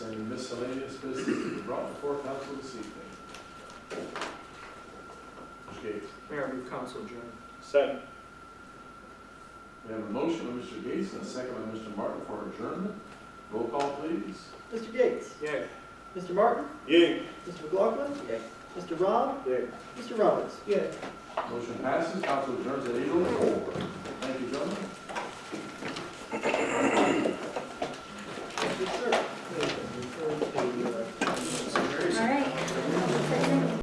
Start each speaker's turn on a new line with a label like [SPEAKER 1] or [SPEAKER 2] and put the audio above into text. [SPEAKER 1] business to be brought before council this evening? Mr. Gates.
[SPEAKER 2] Mayor, I move council adjourned.
[SPEAKER 3] Second.
[SPEAKER 1] We have a motion by Mr. Gates and a second by Mr. Martin for adjournment. Roll call, please.
[SPEAKER 4] Mr. Gates?
[SPEAKER 2] Yay.
[SPEAKER 4] Mr. Martin?
[SPEAKER 3] Yay.
[SPEAKER 4] Mr. McLaughlin? Mr. Rob?
[SPEAKER 3] Yay.
[SPEAKER 4] Mr. Roberts?
[SPEAKER 1] Motion passes, council adjourns at eight oh four. Thank you, gentlemen.